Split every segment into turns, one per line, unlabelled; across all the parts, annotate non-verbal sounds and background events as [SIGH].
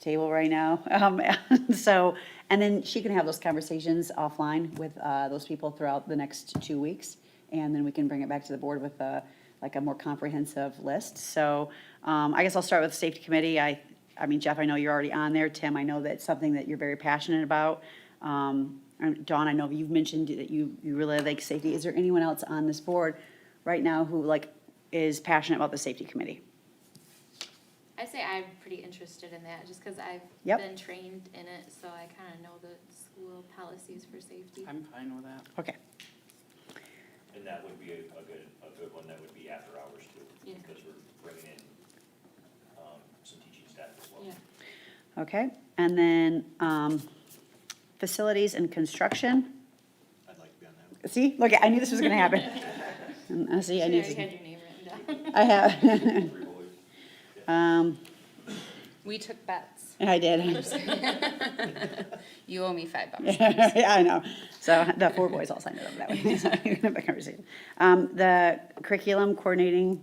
table right now. [LAUGHS] Um, and so, and then she can have those conversations offline with, uh, those people throughout the next two weeks. And then we can bring it back to the board with a, like a more comprehensive list. So, um, I guess I'll start with the safety committee. I, I mean, Jeff, I know you're already on there. Tim, I know that's something that you're very passionate about. Um, and Dawn, I know you've mentioned that you, you really like safety. Is there anyone else on this board right now who like is passionate about the safety committee?
I say I'm pretty interested in that, just because I've
Yep.
been trained in it, so I kind of know the school policies for safety.
I'm fine with that.
Okay.
And that would be a, a good, a good one, that would be after hours too,
Yeah.
because we're bringing in, um, some teaching staff as well.
Yeah,
Okay, and then, um, facilities and construction.
I'd like to be on that.
See, look, I knew this was gonna happen. And, uh, See, I
Shannon,
knew,
you
this-
had your name written down. [LAUGHS]
I have,
Three boys.
um,
We took bets.
[LAUGHS] I did.
You owe me five bucks. [LAUGHS]
Yeah, I know. So the four boys all signed it up that way. [LAUGHS] So you can have that conversation. Um, the curriculum coordinating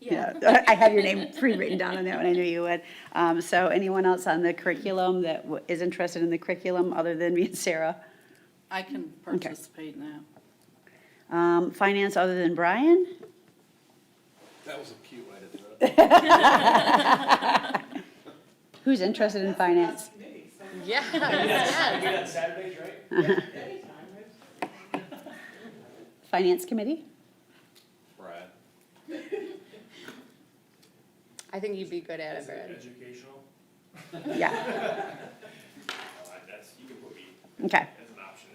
Yeah.
Yeah, I had your name pre-written down on that one, I knew you would. Um, so anyone else on the curriculum that w- is interested in the curriculum other than me and Sarah?
I can participate in that.
Um, finance other than Brian?
That was a cute way to do it.
Who's interested in finance?
We got Saturdays, right?
Finance committee?
Brad.
I think you'd be good at it,
Is it
Brad.
educational?
Yeah,
Uh, that's, you can put me
okay.
as an option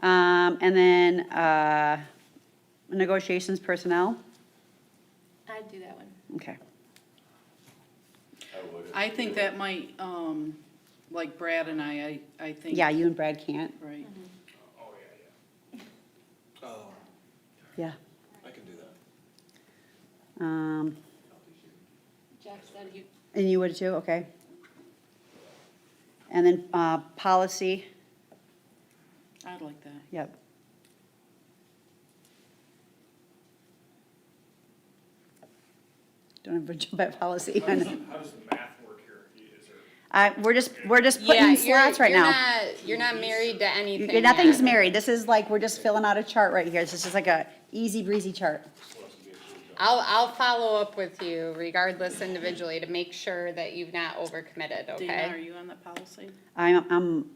there.
Um, and then, uh, negotiations personnel?
I'd do that one.
Okay.
I would.
I think that might, um, like Brad and I, I, I think.
Yeah, you Mm-hmm. and Brad can't,
Right.
Oh, yeah, yeah.
Oh,
yeah.
I can do that.
Um,
Jeff said he,
and you would too, okay. And then, uh, policy,
I'd like that.
yep. Don't have a jump at policy. [LAUGHS]
How does, how does the math work here? Is there?
Uh, we're just, we're just
Yeah,
putting
you're,
slots right
you're
now.
not, you're not married to anything
You- Nothing's
yet.
married. This is like, we're just filling out a chart right here. This is just like a easy breezy chart.
I'll, I'll follow up with you regardless individually to make sure that you've not overcommitted,
Dana, are
okay?
you on that policy?
I'm, I'm,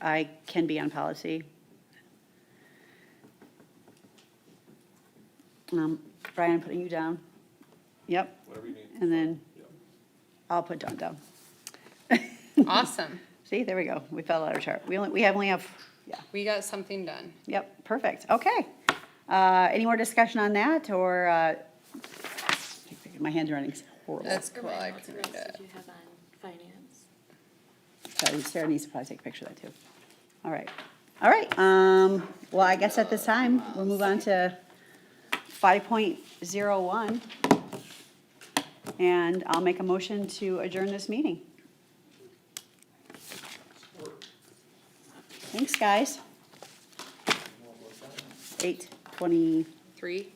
I can be on policy. Um, Brian, I'm putting you down. Yep,
Whatever you need.
and then
Yep.
I'll put Dawn down. [LAUGHS]
Awesome.
See, there we go. We fell out of chart. We only, we have only have, yeah,
We got something done.
yep, perfect. Okay. Uh, any more discussion on that or, uh, my handwriting's horrible.
That's
or
cool. I
what else
can read it.
did you have on finance?
So Sarah needs to probably take a picture of that too. All right, all right, um, well, I guess at this time, we'll move on to five point zero one. And I'll make a motion to adjourn this meeting. Thanks, guys. Eight twenty,
Three?